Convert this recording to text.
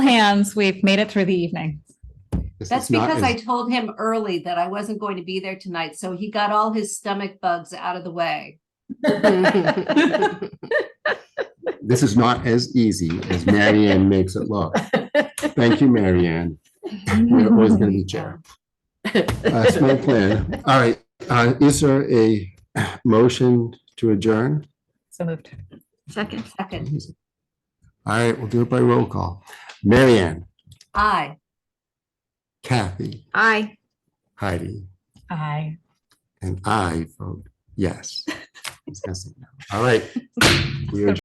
hands, we've made it through the evening. This is That's not because as- I told him early that I wasn't going to be there tonight, so he got all his stomach bugs out of the way. This is not as easy as Marianne makes it look. Thank you, Marianne. You're always gonna be chair. Uh, small plan. All right, uh, is there a motion to adjourn? So moved. Second. Second, All right, we'll do it by roll call. Marianne, aye. Kathy, Aye. Heidi, Aye. and I vote yes. I was gonna say no. All right. We are